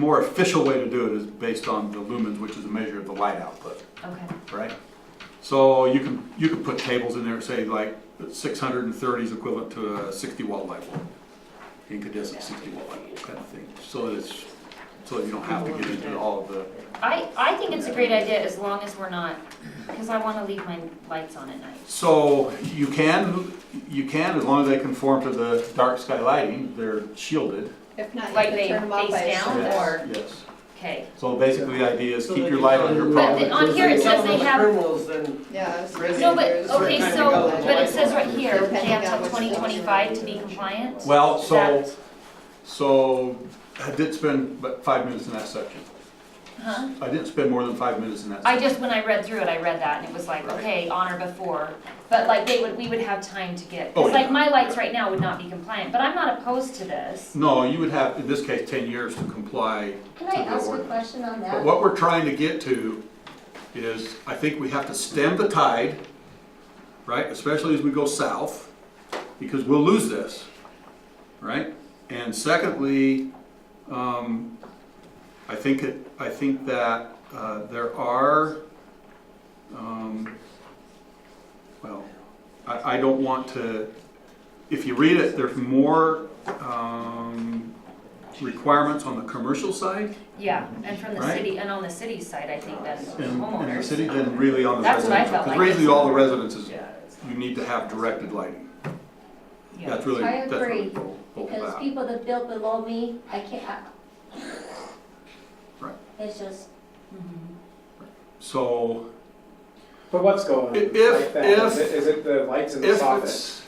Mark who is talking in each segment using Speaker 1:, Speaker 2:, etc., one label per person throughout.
Speaker 1: More official way to do it is based on the lumens, which is a measure of the light output,
Speaker 2: Okay,
Speaker 1: right? So you can, you can put tables in there, say like six hundred and thirty is equivalent to a sixty watt light bulb. Incandescent sixty watt light bulb kind of thing, so that it's, so that you don't have to get into all of the,
Speaker 2: I, I think it's a great idea as long as we're not, because I want to leave my lights on at night.
Speaker 1: so you can, you can, as long as they conform to the dark sky lighting, they're shielded.
Speaker 3: If not,
Speaker 2: Like
Speaker 3: you
Speaker 2: they
Speaker 3: can turn them off
Speaker 2: face
Speaker 3: by a
Speaker 2: down?
Speaker 3: switch.
Speaker 1: Yes,
Speaker 2: Or-
Speaker 1: yes,
Speaker 2: Okay,
Speaker 1: so basically the idea is
Speaker 4: So
Speaker 1: keep
Speaker 4: they
Speaker 1: your
Speaker 4: can
Speaker 1: light
Speaker 4: tell
Speaker 1: on your
Speaker 4: you-
Speaker 2: But
Speaker 1: problem.
Speaker 2: the- on here it says they have-
Speaker 4: Criminals then.
Speaker 3: Yeah. it's-
Speaker 2: no, but,
Speaker 3: it's-
Speaker 2: okay,
Speaker 3: it's-
Speaker 2: so, but it says right here, they
Speaker 3: Depending on
Speaker 2: have till
Speaker 3: which
Speaker 2: twenty
Speaker 3: ones you're
Speaker 2: twenty-five to
Speaker 3: using.
Speaker 2: be compliant?
Speaker 1: Well, so,
Speaker 2: That-
Speaker 1: so I did spend about five minutes in that section.
Speaker 2: Huh?
Speaker 1: I didn't spend more than five minutes in that.
Speaker 2: I
Speaker 1: section.
Speaker 2: just, when I read through it, I read that and it was like,
Speaker 1: Right.
Speaker 2: okay, on or before, but like they would, we would have time to get,
Speaker 1: Oh,
Speaker 2: it's like
Speaker 1: yeah.
Speaker 2: my lights right now would not be compliant, but I'm not opposed to this.
Speaker 1: No, you would have, in this case, ten years to comply.
Speaker 5: Can I
Speaker 1: to the
Speaker 5: ask a
Speaker 1: order.
Speaker 5: question on
Speaker 1: But
Speaker 5: that?
Speaker 1: what we're trying to get to is, I think we have to stem the tide, right, especially as we go south, because we'll lose this, right? And secondly, um, I think it, I think that, uh, there are, um, well, I, I don't want to, if you read it, there's more, um, requirements on the commercial side
Speaker 2: Yeah, and from the
Speaker 1: Right.
Speaker 2: city, and on the city side, I think that's
Speaker 1: in, in the city
Speaker 2: homeowners.
Speaker 1: than really on the
Speaker 2: That's what I
Speaker 1: residential.
Speaker 2: felt
Speaker 1: Because
Speaker 2: like.
Speaker 1: really all the residences,
Speaker 2: Yeah, it's-
Speaker 1: you need to have directed lighting.
Speaker 2: yeah.
Speaker 1: That's really,
Speaker 5: I
Speaker 1: that's really
Speaker 5: agree,
Speaker 1: the whole- whole
Speaker 5: Because
Speaker 1: about.
Speaker 5: people that built below me, I can't, I-
Speaker 1: Right.
Speaker 5: It's just,
Speaker 2: Mhm.
Speaker 1: So
Speaker 6: But what's going on?
Speaker 1: If- if-
Speaker 6: Um, like that? Is
Speaker 1: if-
Speaker 6: it- is it the lights in the
Speaker 1: if
Speaker 6: soffit?
Speaker 1: it's,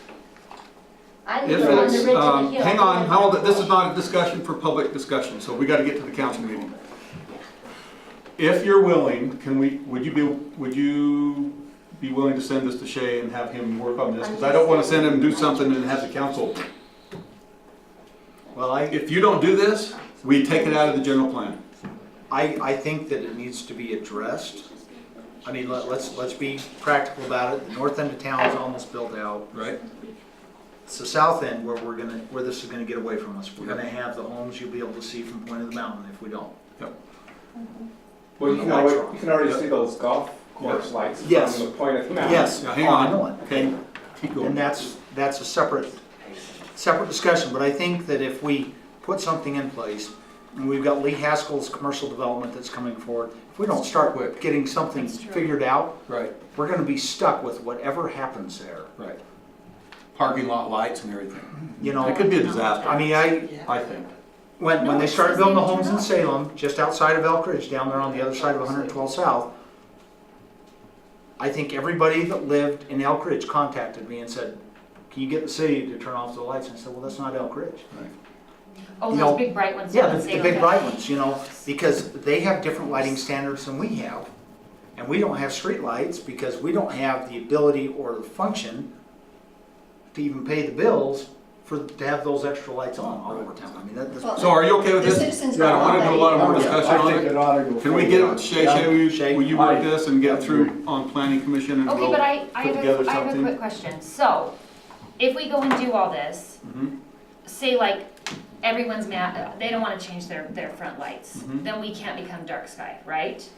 Speaker 5: I
Speaker 1: if
Speaker 5: live on the ridge of
Speaker 1: it's,
Speaker 5: the
Speaker 1: um,
Speaker 5: hill.
Speaker 1: hang on, hold on, this is not a discussion for public discussion, so we gotta get to the council meeting. If you're willing, can we, would you be, would you be willing to send this to Shay and have him work on this? Because I don't wanna send him do something and have the council,
Speaker 7: Well, I,
Speaker 1: if you don't do this, we take it out of the general plan.
Speaker 7: I, I think that it needs to be addressed. I mean, let, let's, let's be practical about it. The north end of town is almost built out.
Speaker 1: Right.
Speaker 7: It's the south end where we're gonna, where this is gonna get away from us. We're gonna have the homes you'll be able to see from Point of the Mountain if we don't.
Speaker 6: Well, you can
Speaker 7: Lights
Speaker 6: already,
Speaker 7: are on.
Speaker 6: you can already see those golf course lights from
Speaker 7: Yes.
Speaker 6: the point of the mountain.
Speaker 7: Yes.
Speaker 1: Now, hang
Speaker 7: I know
Speaker 1: on,
Speaker 7: it.
Speaker 1: okay? Keep going.
Speaker 7: And that's, that's a separate, separate discussion, but I think that if we put something in place, and we've got Lee Haskell's commercial development that's coming forward, if we don't start with getting something
Speaker 2: That's true.
Speaker 7: figured out,
Speaker 1: Right,
Speaker 7: we're gonna be stuck with whatever happens there.
Speaker 1: right. Parking lot lights and everything.
Speaker 7: You know,
Speaker 1: It could be a disaster,
Speaker 7: I mean, I,
Speaker 1: I think.
Speaker 7: when,
Speaker 2: No,
Speaker 7: when they
Speaker 2: it
Speaker 7: started
Speaker 2: says
Speaker 7: building the
Speaker 2: they
Speaker 7: homes in
Speaker 2: turn
Speaker 7: Salem, just outside of Elk Ridge, down there on the other side of 112 South, I think everybody that lived in Elk Ridge contacted me and said, can you get the city to turn off the lights? And I said, well, that's not Elk Ridge.
Speaker 2: Oh,
Speaker 7: you
Speaker 2: those
Speaker 7: know,
Speaker 2: big bright ones.
Speaker 7: Yeah,
Speaker 2: don't
Speaker 7: the,
Speaker 2: say
Speaker 7: the big
Speaker 2: okay.
Speaker 7: bright ones, you know, because they have different lighting standards than we have. And we don't have streetlights because we don't have the ability or the function to even pay the bills for, to have those extra lights on all over town. I mean, that, that's.
Speaker 3: Well,
Speaker 1: So are you okay with
Speaker 3: The
Speaker 1: this?
Speaker 3: citizens
Speaker 1: Yeah, I don't wanna do a lot of more
Speaker 6: Oh, yeah.
Speaker 1: discussion
Speaker 6: I
Speaker 1: on
Speaker 6: think
Speaker 1: it.
Speaker 6: it ought to go
Speaker 1: Can we get,
Speaker 6: forward.
Speaker 1: it? Shay, Shay, will you,
Speaker 7: Shay.
Speaker 1: will you work this and get through on planning commission and
Speaker 2: Okay,
Speaker 1: we'll?
Speaker 2: but I, I
Speaker 1: put
Speaker 2: have,
Speaker 1: together
Speaker 2: a I have a
Speaker 1: something.
Speaker 2: quick question. So, if we go and do all this,
Speaker 1: Mhm.
Speaker 2: say like, everyone's mad, they don't wanna change their, their front lights,
Speaker 1: Mhm.
Speaker 2: then we can't become dark sky, right?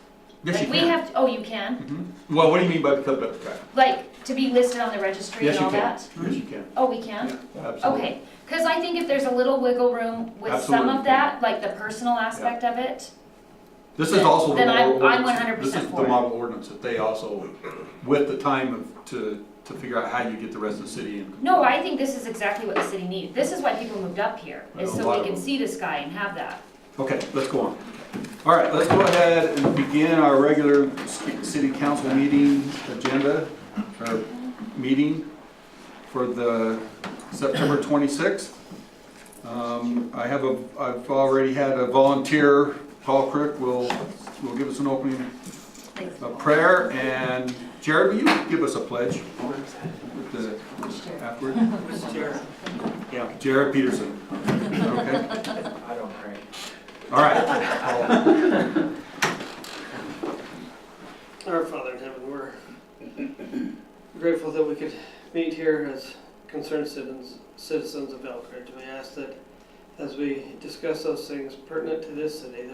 Speaker 1: Yes, you
Speaker 2: Like, we
Speaker 1: can.
Speaker 2: have, oh, you can?
Speaker 1: Well, what do you mean by because of that?
Speaker 2: Like, to be listed on the registry
Speaker 1: Yes,
Speaker 2: and
Speaker 1: you
Speaker 2: all
Speaker 1: can.
Speaker 2: that?
Speaker 1: Yes, you can.
Speaker 2: Oh, we can?
Speaker 1: Absolutely.
Speaker 2: Okay, because I think if there's a little wiggle room with some
Speaker 1: Absolutely.
Speaker 2: of that, like the personal aspect of it,
Speaker 1: This is also the
Speaker 2: Then I'm-
Speaker 1: model
Speaker 2: I'm
Speaker 1: ordinance. This
Speaker 2: 100%
Speaker 1: is
Speaker 2: for
Speaker 1: the
Speaker 2: it.
Speaker 1: model ordinance that they also, with the time of, to, to figure out how you get the rest of the city in.
Speaker 2: no, I think this is exactly what the city needs. This is why people moved up here, is
Speaker 1: Well, a
Speaker 2: so
Speaker 1: lot
Speaker 2: we
Speaker 1: of
Speaker 2: can
Speaker 1: them.
Speaker 2: see the sky and have that.
Speaker 1: Okay, let's go on. All right, let's go ahead and begin our regular city council meeting agenda, or meeting for the September 26th. Um, I have a, I've already had a volunteer, Paul Crick will, will give us an opening of prayer, and Jared, will you give us a pledge with the afterward?
Speaker 7: Yeah.
Speaker 1: Jared Peterson, okay?
Speaker 7: I don't pray.
Speaker 1: All right.
Speaker 4: Our Father in heaven, we're grateful that we could meet here as concerned citizens, citizens of Elk Ridge. We ask that as we discuss those things pertinent to this city,